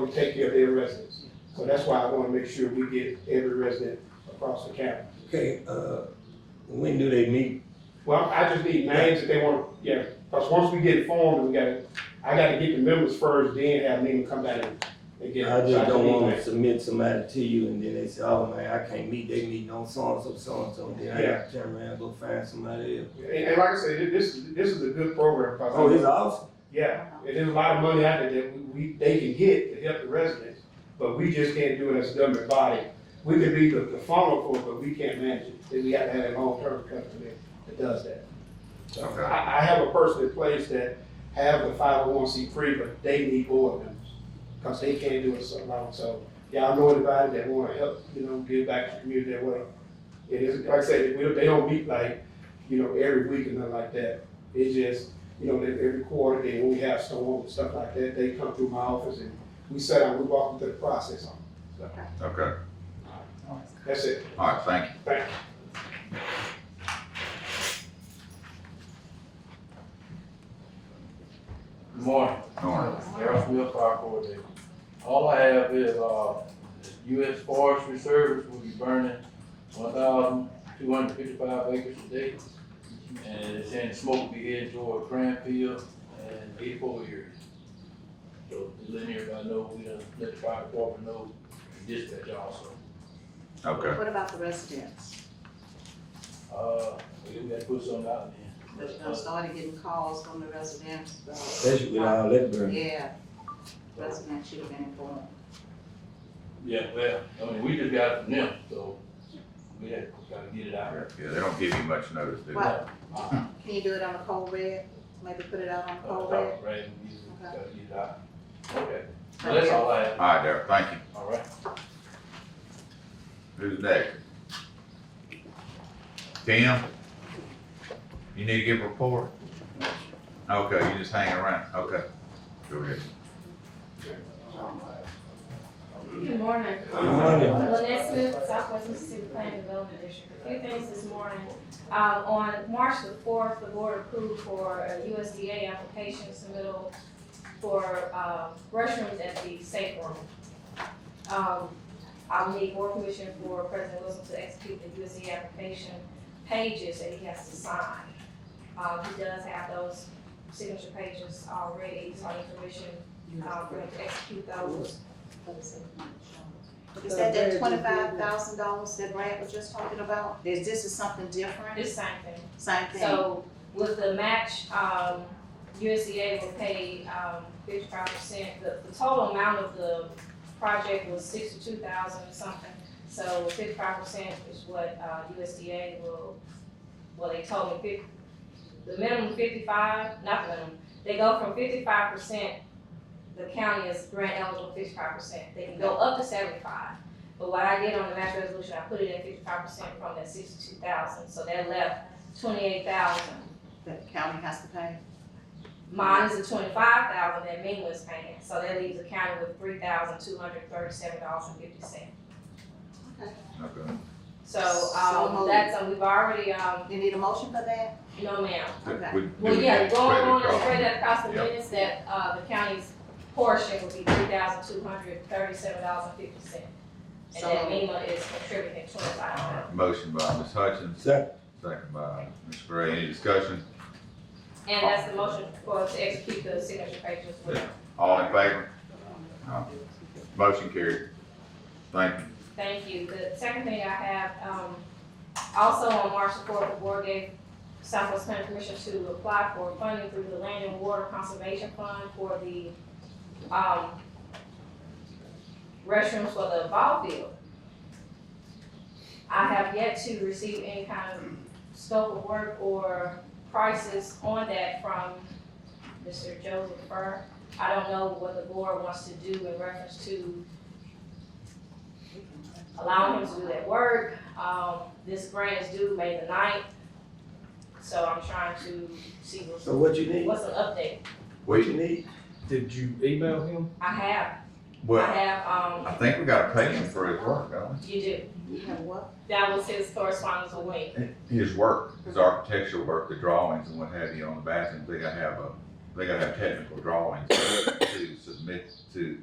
to take care of their residents. So that's why I wanna make sure we get every resident across the county. Okay, uh, when do they meet? Well, I just need names that they want, yeah, because once we get formed, we gotta, I gotta get the members first, then have them come down and- and get. I so just don't need wanna names. submit somebody to you and then they say, oh man, I can't meet, they meeting on so-and-so, so-and-so, then I Yeah. gotta turn around, and go find somebody else. And, and like I said, thi- this, is this is a good program, Oh, it's because, awesome. yeah, and there's a lot of money out there that we- we, they can get to help the residents, but we just can't do it as a government body. We could be the, the funnel for it, but we can't manage it, then we have to have a long-term company that does that. Okay. I, I have a person in place that have the five oh one C three, but they need board members, cause they can't do it so long, so y'all know anybody that wanna help, you know, give back to the community that way. It is, like I said, we, don't- they don't meet like, you know, every week and nothing like that, it's just, you know, they- every quarter, then when we have storms and stuff like that, they come through my office and we sit down, we walk them through the process on, it. so, Okay, that's it, all right, thank you. thank you. Good morning, All right. Darrell Smith, Fire Coordinator. All I have is, uh, U.S. Forestry Service will be burning one thousand two hundred fifty-five acres today. And it's saying the smoke will be headed toward Cranfield and Depot area. So to let everybody know, we done let the fire department know, and dispatch also. Okay, What about the residents? Uh, we gotta put something out there. There's- I started getting calls from the residents, but, Especially with all that burning. yeah, residents should have been informed. Yeah, well, I mean, we just got it from them, so we had, gotta get it out. yeah, they don't give you much notice, do they? Right. Uh, Can you do it on a cold red? Maybe put it out on a Uh, cold red? Dr. Brandon, you Okay. gotta get it out. Okay, well, that's all I have, All right, Darrell, thank you. all right. Who's next? Tim? You need to give a report? Okay, you just hang around, okay. Go ahead. Good morning. Good morning. Lynette Smith, Southwest Mississippi Planning Development District. A few things this morning. Um, on March the fourth, the board approved for a USDA application submittal for, um, restrooms at the safe room. Um, I'll need board permission for President Wilson to execute the USDA application pages that he has to sign. Uh, he does have those signature pages already, so I need permission, uh, for him to execute those. Is that that twenty-five thousand dollars that Brad was just talking about? Is this is something different? This same thing. Same thing? So with the match, um, USDA will pay, um, fifty-five percent. The, the total amount of the project was sixty-two thousand or something. So fifty-five percent is what, uh, USDA will, well, they told me fif- the minimum fifty-five, not the minimum. They go from fifty-five percent, the county is grant eligible fifty-five percent. They can go up to seventy-five. But what I did on the match resolution, I put it at fifty-five percent from that sixty-two thousand, so that left twenty-eight thousand. That the county has to pay? Mine is the twenty-five thousand that Ming was paying, so that leaves the county with three thousand two hundred thirty-seven dollars and fifty cents. Okay. So, So um, moved. that's, uh, we've already, um, You need a motion for that? no ma'am. Okay. We- Well, we- yeah, going credit on and card. spread that across the Yep. minutes, that, uh, the county's portion would be three thousand two hundred thirty-seven dollars and fifty cents. And So that MEMA is contributing twenty-five All dollars. right, Motion by Ms. Hutchins, Second, second by Ms. Gray, any discussion? And that's Oh. the motion for us to execute the signature pages with. All in favor? No. Motion carried. Thank you. Thank you. The second thing I have, um, also on March the fourth, the board gave Southwest Planning Commission to apply for funding through the Land and Water Conservation Fund for the, um, restrooms for the ball field. I have yet to receive any kind of scope of work or prices on that from Mr. Joseph Burr. I don't know what the board wants to do in reference to allowing him to do that work. Um, this grant is due May the ninth, so I'm trying to see what's, so what you need, what's an update. what We, you need? Did you email him? I have, I well, have, I um, think we gotta pay him for his work, don't you do. You have what? That was his correspondence with me. we? His work, his architectural work, the drawings and what have you on the bathrooms, they gotta have a, they gotta have technical drawings to submit to,